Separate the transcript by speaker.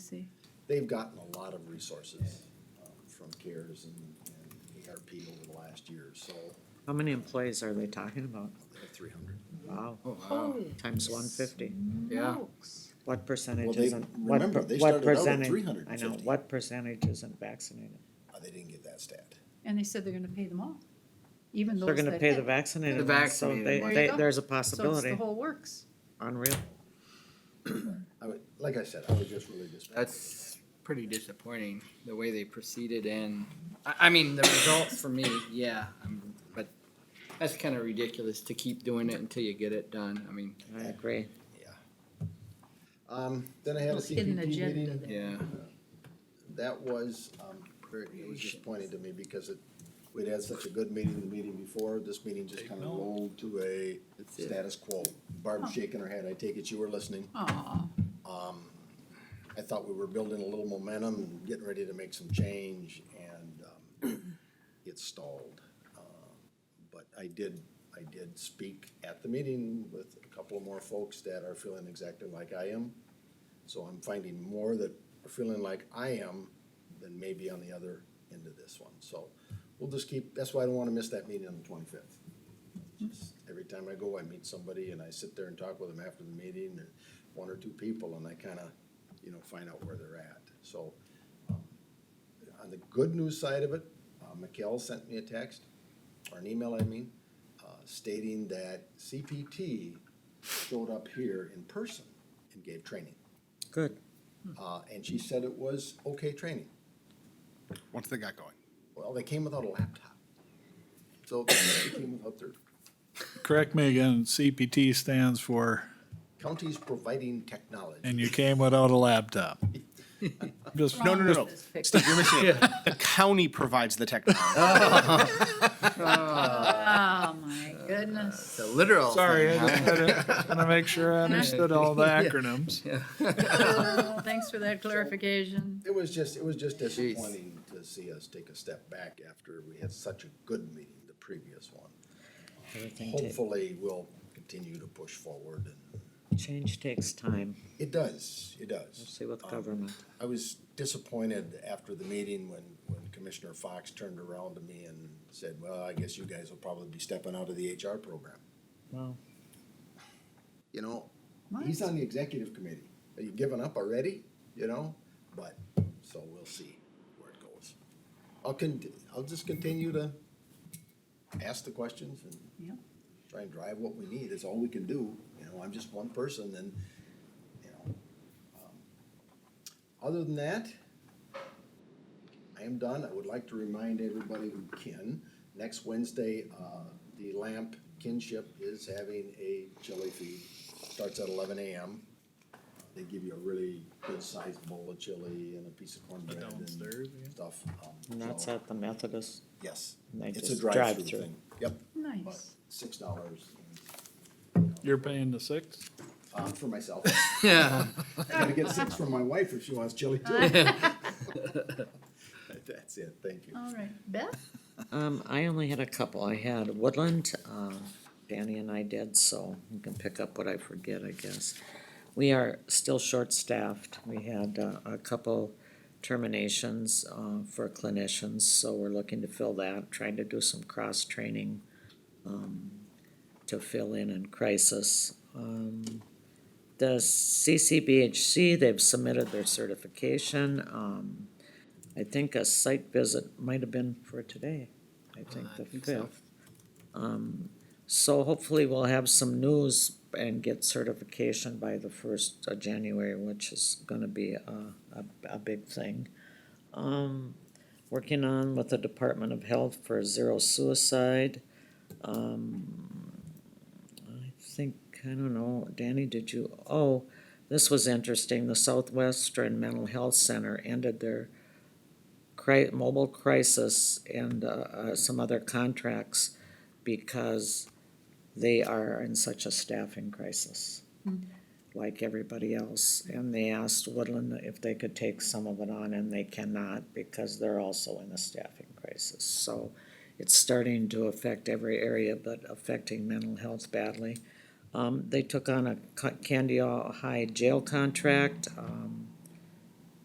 Speaker 1: see.
Speaker 2: they've gotten a lot of resources um, from CARES and, and ARP over the last year, so
Speaker 3: How many employees are they talking about?
Speaker 2: three hundred.
Speaker 3: Wow,
Speaker 4: Oh, wow.
Speaker 3: times one fifty.
Speaker 4: Yeah.
Speaker 3: What percentage
Speaker 2: they-
Speaker 3: isn't, what,
Speaker 2: remember,
Speaker 3: per-
Speaker 2: they
Speaker 3: what
Speaker 2: started out at
Speaker 3: percentage, I know,
Speaker 2: 350.
Speaker 3: what percentage isn't vaccinated?
Speaker 2: Oh, They didn't get that stat.
Speaker 1: And they said they're gonna pay them all, even those
Speaker 3: They're
Speaker 1: that.
Speaker 3: gonna pay the
Speaker 1: had.
Speaker 4: The
Speaker 3: vaccinated ones, so
Speaker 4: vaccinated
Speaker 3: they,
Speaker 1: ones. There you
Speaker 3: they,
Speaker 1: go.
Speaker 3: there's
Speaker 1: So
Speaker 3: a
Speaker 1: it's the
Speaker 3: possibility,
Speaker 1: whole works.
Speaker 3: unreal.
Speaker 2: I would, like I said, I was just really just.
Speaker 4: That's pretty disappointing the way they proceeded and I, I mean the results for me, yeah, I'm, but that's kind of ridiculous to keep doing it until you get it done. I mean,
Speaker 3: I agree.
Speaker 2: Um, then I had a
Speaker 1: Little hidden
Speaker 2: CPT
Speaker 1: agenda
Speaker 2: meeting,
Speaker 1: there.
Speaker 4: yeah,
Speaker 2: that was, um, very, it was disappointing to me because it, we'd had such a good meeting the meeting before, this meeting just kinda rolled to a
Speaker 4: that's it.
Speaker 2: status quo. Barb's shaking her head, I take it you were listening.
Speaker 1: Aw,
Speaker 2: Um, I thought we were building a little momentum and getting ready to make some change and, um, it stalled. Uh, But I did, I did speak at the meeting with a couple of more folks that are feeling exactly like I am. So I'm finding more that are feeling like I am than maybe on the other end of this one. So we'll just keep, that's why I don't wanna miss that meeting on the twenty-fifth. Every time I go, I meet somebody and I sit there and talk with them after the meeting and one or two people and I kinda, you know, find out where they're at. So, um, on the good news side of it, uh, Mikkel sent me a text, or an email, I mean, uh, stating that CPT showed up here in person and gave training.
Speaker 3: Good.
Speaker 2: Uh, and she said it was okay training.
Speaker 5: once they got going.
Speaker 2: Well, they came without a laptop. So they came without their
Speaker 6: Correct me again, CPT stands for,
Speaker 2: counties providing technology.
Speaker 6: and you came without a laptop. Just,
Speaker 5: No, no, no, no.
Speaker 1: This picture.
Speaker 5: Steve, you're missing it. The county provides the technology.
Speaker 1: Oh, my goodness.
Speaker 4: It's a literal.
Speaker 6: sorry,
Speaker 4: thing,
Speaker 6: I
Speaker 4: huh?
Speaker 6: just had to make sure I understood all the acronyms.
Speaker 1: Oh, Thanks for that clarification.
Speaker 2: It was just, it was just disappointing to see us take a step back after we had such a good meeting, the previous one.
Speaker 3: Everything ta-
Speaker 2: Hopefully, we'll continue to push forward and
Speaker 3: change takes time.
Speaker 2: it does, it does.
Speaker 3: We'll see what the
Speaker 2: Um,
Speaker 3: government,
Speaker 2: I was disappointed after the meeting when, when Commissioner Fox turned around to me and said, well, I guess you guys will probably be stepping out of the HR program.
Speaker 3: well,
Speaker 2: You know,
Speaker 1: What?
Speaker 2: he's on the executive committee. Are you giving up already? You know, but, so we'll see where it goes. I'll con, I'll just continue to ask the questions and
Speaker 1: Yep.
Speaker 2: try and drive what we need. It's all we can do. You know, I'm just one person and, you know. um, Other than that, I am done. I would like to remind everybody who can, next Wednesday, uh, the Lamp Kinship is having a chili feed. Starts at eleven AM. They give you a really good sized bowl of chili and a piece of cornbread and
Speaker 6: Downstairs, yeah.
Speaker 2: stuff. um,
Speaker 3: and that's
Speaker 2: so-
Speaker 3: at the Methodist,
Speaker 2: Yes,
Speaker 3: and they
Speaker 2: it's a
Speaker 3: just
Speaker 2: drive-through
Speaker 3: drive through.
Speaker 2: thing. Yep, but
Speaker 1: Nice.
Speaker 2: six dollars.
Speaker 6: You're paying the six?
Speaker 2: Um, for myself.
Speaker 4: Yeah.
Speaker 2: I gotta get six from my wife if she wants chili too. That's it, thank you.
Speaker 1: All right, Beth?
Speaker 3: Um, I only had a couple. I had Woodland, uh, Danny and I did, so you can pick up what I forget, I guess. We are still short-staffed. We had, uh, a couple terminations, uh, for clinicians, so we're looking to fill that, trying to do some cross-training, um, to fill in in crisis. Um, the CCBHC, they've submitted their certification, um, I think a site visit might have been for today, I think
Speaker 4: Uh, I
Speaker 3: the
Speaker 4: think so.
Speaker 3: fifth. Um, So hopefully we'll have some news and get certification by the first of January, which is gonna be a, a, a big thing. Um, working on with the Department of Health for zero suicide. Um, I think, I don't know, Danny, did you, oh, this was interesting, the Southwestern Mental Health Center ended their cri- mobile crisis and, uh, uh, some other contracts because they are in such a staffing crisis, like everybody else. And they asked Woodland if they could take some of it on, and they cannot because they're also in a staffing crisis. So it's starting to affect every area, but affecting mental health badly. Um, they took on a Ca- Candy High jail contract, um,